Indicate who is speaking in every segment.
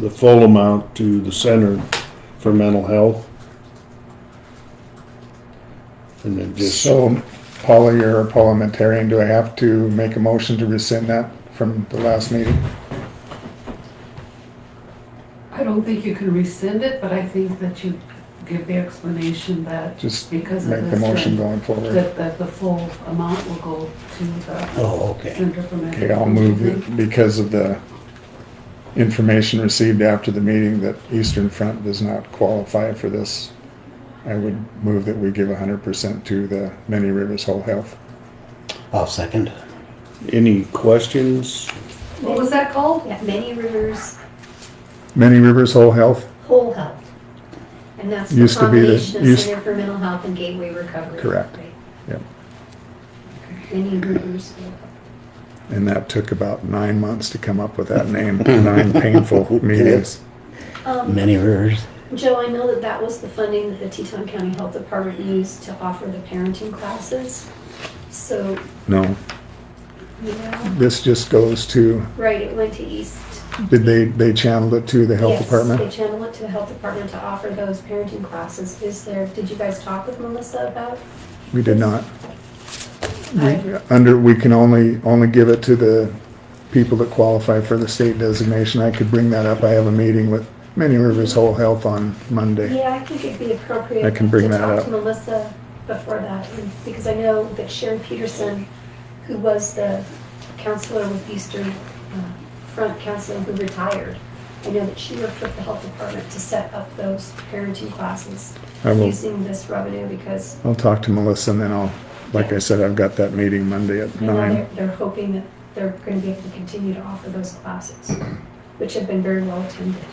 Speaker 1: the full amount to the Center for Mental Health. And then just,
Speaker 2: So, Paula, you're a parliamentarian, do I have to make a motion to rescind that from the last meeting?
Speaker 3: I don't think you can rescind it, but I think that you give the explanation that
Speaker 2: Just
Speaker 3: because of
Speaker 2: make the
Speaker 3: this,
Speaker 2: motion
Speaker 3: that,
Speaker 2: going forward.
Speaker 3: that- that the full amount will go to the
Speaker 4: Oh, okay.
Speaker 3: Center for Mental.
Speaker 2: Okay, I'll
Speaker 3: Health.
Speaker 2: move it because of the information received after the meeting that Eastern Front does not qualify for this. I would move that we give hundred percent to the Many Rivers Whole Health.
Speaker 4: I'll second.
Speaker 1: any questions?
Speaker 3: What was that called?
Speaker 5: Yeah, Many Rivers
Speaker 2: Many Rivers Whole Health,
Speaker 5: Whole Health. And that's the
Speaker 2: Used to be the-
Speaker 5: combination of
Speaker 2: used-
Speaker 5: Center for Mental Health and Gateway Recovery.
Speaker 2: Correct.
Speaker 5: right?
Speaker 2: Yep.
Speaker 5: Many Rivers Whole Health.
Speaker 2: and that took about nine months to come up with that name, nine painful meetings.
Speaker 5: Um,
Speaker 4: Many rivers.
Speaker 5: Joe, I know that that was the funding that the Teton County Health Department used to offer the parenting classes. So,
Speaker 2: No,
Speaker 5: you know,
Speaker 2: this just goes to
Speaker 5: right, it went to East.
Speaker 2: Did they, they channeled it to the health
Speaker 5: Yes, They
Speaker 2: department?
Speaker 5: channel it to the health department to offer those parenting classes. Is there, did you guys talk with Melissa about?
Speaker 2: We did not.
Speaker 5: I-
Speaker 2: We, under, we can only, only give it to the people that qualify for the state designation. I could bring that up. I have a meeting with Many Rivers Whole Health on Monday.
Speaker 5: Yeah, I think it'd be appropriate.
Speaker 2: I can bring
Speaker 5: to
Speaker 2: that
Speaker 5: talk
Speaker 2: up.
Speaker 5: To Melissa before that, and- because I know that Sharon Peterson, who was the counselor with Eastern uh, Front Counseling, who retired, I know that she worked with the health department to set up those parenting classes
Speaker 2: I will,
Speaker 5: using this revenue, because
Speaker 2: I'll talk to Melissa and then I'll, like I said, I've got that meeting Monday at
Speaker 5: I know
Speaker 2: nine.
Speaker 5: they're, they're hoping that they're gonna be able to continue to offer those classes, which have been very well attended.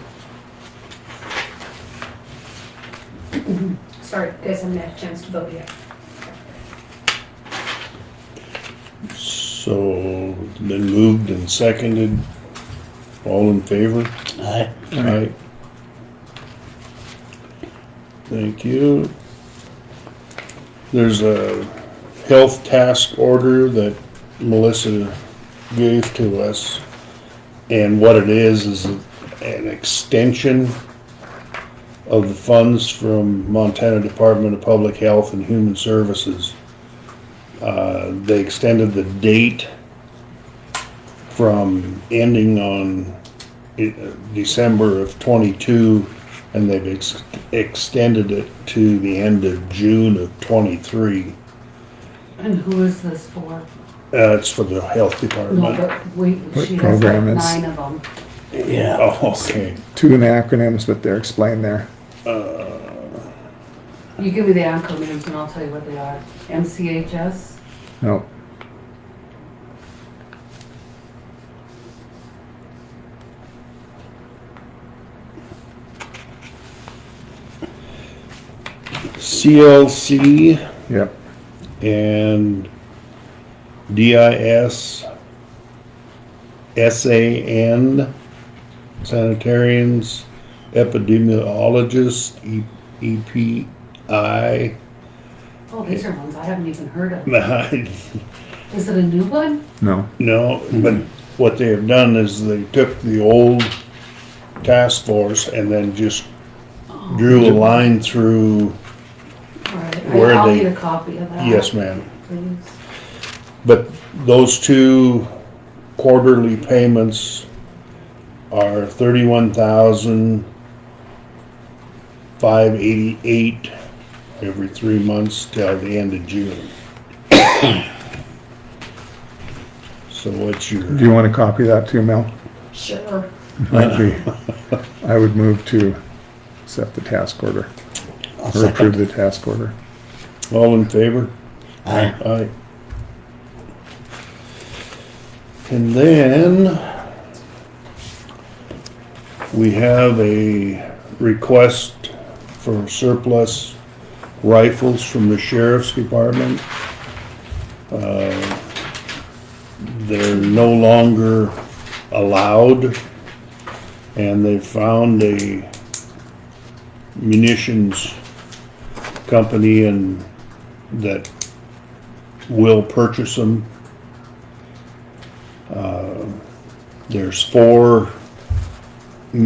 Speaker 5: Sorry, guys, I haven't had a chance to vote yet.
Speaker 1: So, then moved and seconded, all in favor?
Speaker 4: Aye.
Speaker 1: Aye. Thank you. There's a health task order that Melissa gave to us. And what it is, is an extension of the funds from Montana Department of Public Health and Human Services. Uh, they extended the date from ending on it- uh, December of twenty-two, and they've ex- extended it to the end of June of twenty-three.
Speaker 3: And who is this for?
Speaker 1: Uh, it's for the health
Speaker 3: No,
Speaker 1: department.
Speaker 3: but we,
Speaker 2: What
Speaker 3: she has like
Speaker 2: program is-
Speaker 3: nine of them.
Speaker 4: Yeah.
Speaker 1: Oh, okay.
Speaker 2: Two acronyms, but they're explained there.
Speaker 3: You give me the acronyms and I'll tell you what they are. MCHS,
Speaker 2: No,
Speaker 1: CLC
Speaker 2: yep,
Speaker 1: and DIS, SAN, sanitarians, epidemiologists, E- EPI.
Speaker 3: oh, these are ones I haven't even heard of.
Speaker 1: I
Speaker 3: Is it a new one?
Speaker 2: no.
Speaker 1: No, but what they have done is they took the old task force and then just drew a line through,
Speaker 3: All right,
Speaker 1: Where are
Speaker 3: I'll
Speaker 1: they-
Speaker 3: need a copy of that.
Speaker 1: yes, ma'am.
Speaker 3: Please.
Speaker 1: But those two quarterly payments are thirty-one thousand five eighty-eight every three months till the end of June. So what's your?
Speaker 2: Do you want to copy that too, Mel?
Speaker 5: Sure.
Speaker 2: Might be. I would move to accept the task order,
Speaker 4: I'll
Speaker 2: or approve
Speaker 4: second.
Speaker 2: the task order.
Speaker 1: All in favor?
Speaker 4: Aye.
Speaker 1: Aye. And then we have a request for surplus rifles from the sheriff's department. Uh, They're no longer allowed and they found a munitions company and that will purchase them. Uh, There's four